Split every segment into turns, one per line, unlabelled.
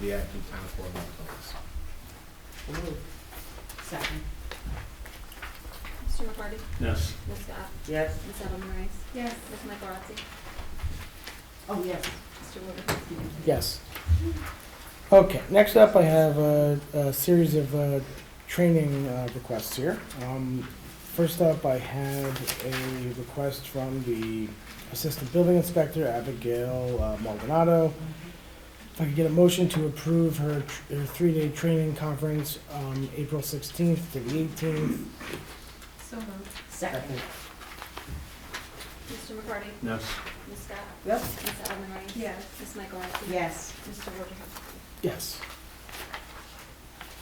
the acting town clerk employees.
Second.
Mr. McCarty?
Yes.
Ms. Scott?
Yes.
Ms. Edelman Rice?
Yes.
Ms. Mike Rotzi?
Oh, yes.
Mr. Woodhouse?
Yes. Okay, next up, I have a, a series of uh, training uh, requests here. Um, First up, I had a request from the Assistant Building Inspector, Abigail uh, Maldonado. If I could get a motion to approve her, tr- her three-day training conference, um, April 16th to the 18th.
So moved. Second.
Mr. McCarty?
Yes.
Ms. Scott?
Yep.
Ms. Edelman Rice? Ms. Mike Rotzi?
Yes.
Mr. Woodhouse?
Yes.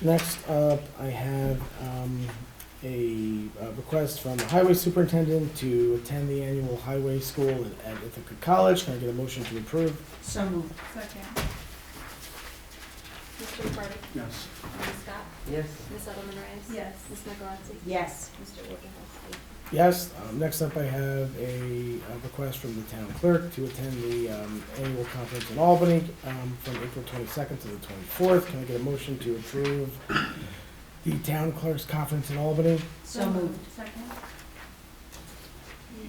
Next up, I have um, a uh, request from the highway superintendent to attend the annual highway school at at Ithaca College. Can I get a motion to approve?
So moved. Second.
Mr. McCarty?
Yes.
Ms. Scott?
Yes.
Ms. Edelman Rice?
Yes.
Ms. Mike Rotzi?
Yes.
Mr. Woodhouse?
Yes. Um, Next up, I have a uh, request from the town clerk to attend the um, annual conference in Albany um, from April 22nd to the 24th. Can I get a motion to approve the town clerk's conference in Albany?
So moved.
Second.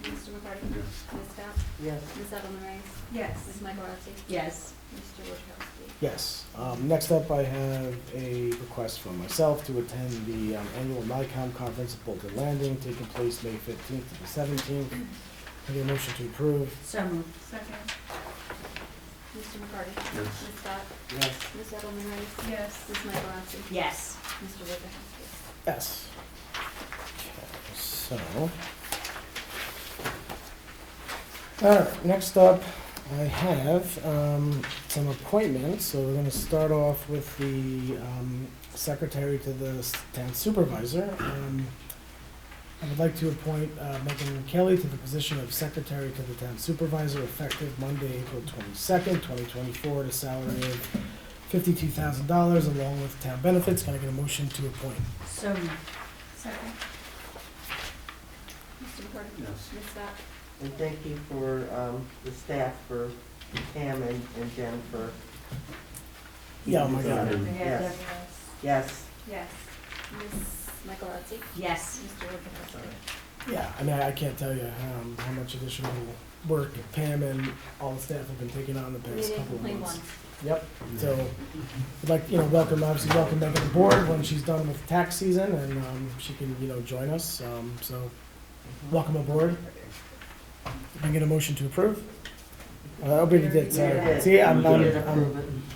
Mr. McCarty?
Yes.
Ms. Scott?
Yes.
Ms. Edelman Rice?
Yes.
Ms. Mike Rotzi?
Yes.
Mr. Woodhouse?
Yes. Um, next up, I have a request from myself to attend the um, annual NICOM conference at Boulder Landing, taking place May fifteenth to the seventeenth. I get a motion to approve.
So moved. Second.
Mr. McCarty?
Yes.
Ms. Scott?
Yes.
Ms. Edelman Rice?
Yes.
Ms. Mike Rotzi?
Yes.
Mr. Woodhouse?
Yes. Okay, So. All right, next up, I have um, some appointments, so we're gonna start off with the um, secretary to the s- town supervisor. Um, I would like to appoint uh, Megan Kelly to the position of secretary to the town supervisor effective Monday, April twenty-second, twenty twenty-four, at a salary of fifty-two thousand dollars along with town benefits. Can I get a motion to appoint?
So moved. Second.
Mr. McCarty?
Yes.
Ms. Scott?
And thank you for, um, the staff for Pam and and Jennifer.
Yeah, oh my God.
Yes. Yes,
Yes. Ms. Michael Rotzi?
Yes.
Mr. Wojciechowski?
Yeah, I mean, I can't tell you um, how much additional work Pam and all the staff have been taking on the
We
past
didn't
couple of
complain
months.
once.
Yep, so, I'd like, you know, welcome, obviously welcome back to the board when she's done with tax season and um, she can, you know, join us, um, so, welcome aboard. Can I get a motion to approve? Uh, I already did, sorry. See, I'm,
you
I'm,
did approve
I'm-
it.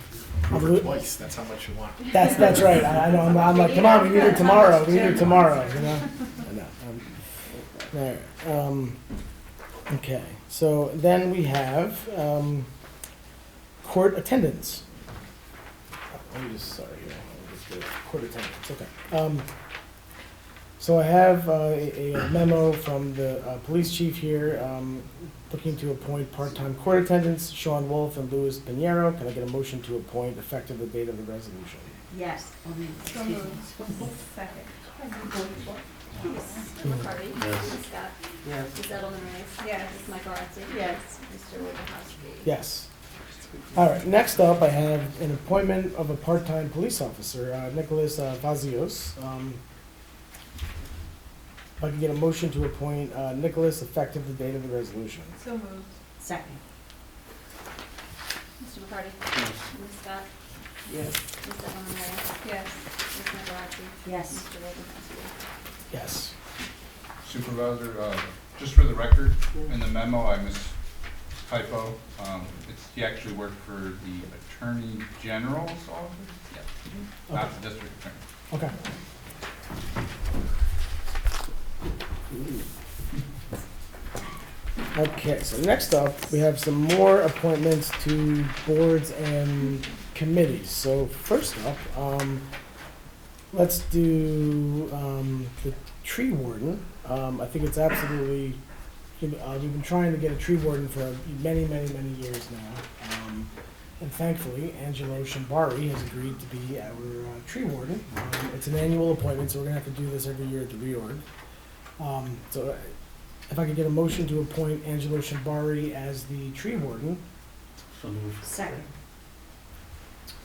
Approve it twice, that's how much you want.
that's, that's right, I I know, I'm- I'm like, come on, we need it tomorrow, we need it tomorrow, you know? I know, um, There, um, okay, so then we have, um, court attendance. Let me just, sorry, here, I'll just do it. court attendance, okay. Um, so I have, uh, a a memo from the, uh, police chief here, um, looking to appoint part-time court attendants, Sean Wolf and Louis Pinheiro. Can I get a motion to appoint effective the date of the resolution?
Yes. I mean,
So
excuse me.
moved. Second.
Mr. McCarty?
Yes.
Ms. Scott?
Yes,
Ms. Edelman Rice?
Yes.
Ms. Michael Rotzi?
Yes.
Mr. Wojciechowski?
Yes. All right, next up, I have an appointment of a part-time police officer, uh, Nicholas uh, Vazios. Um, If I could get a motion to appoint uh, Nicholas effective the date of the resolution.
So moved.
Second.
Mr. McCarty?
Yes.
Ms. Scott?
yes.
Ms. Edelman Rice?
Yes.
Ms. Michael Rotzi?
Yes.
Mr. Wojciechowski?
Yes.
Supervisor, uh, just for the record, in the memo, I mistypo. Um, It's, he actually worked for the Attorney General's office? Yeah,
Okay.
not the district attorney.
Okay. Okay, so next up, we have some more appointments to boards and committees. So first up, um, let's do, um, the tree warden. Um, I think it's absolutely, uh, we've been trying to get a tree warden for many, many, many years now. Um, and thankfully, Angelo Shambari has agreed to be our uh, tree warden. Um, it's an annual appointment, so we're gonna have to do this every year at the reorg. Um, so uh, if I could get a motion to appoint Angelo Shambari as the tree warden,
So move.
Second.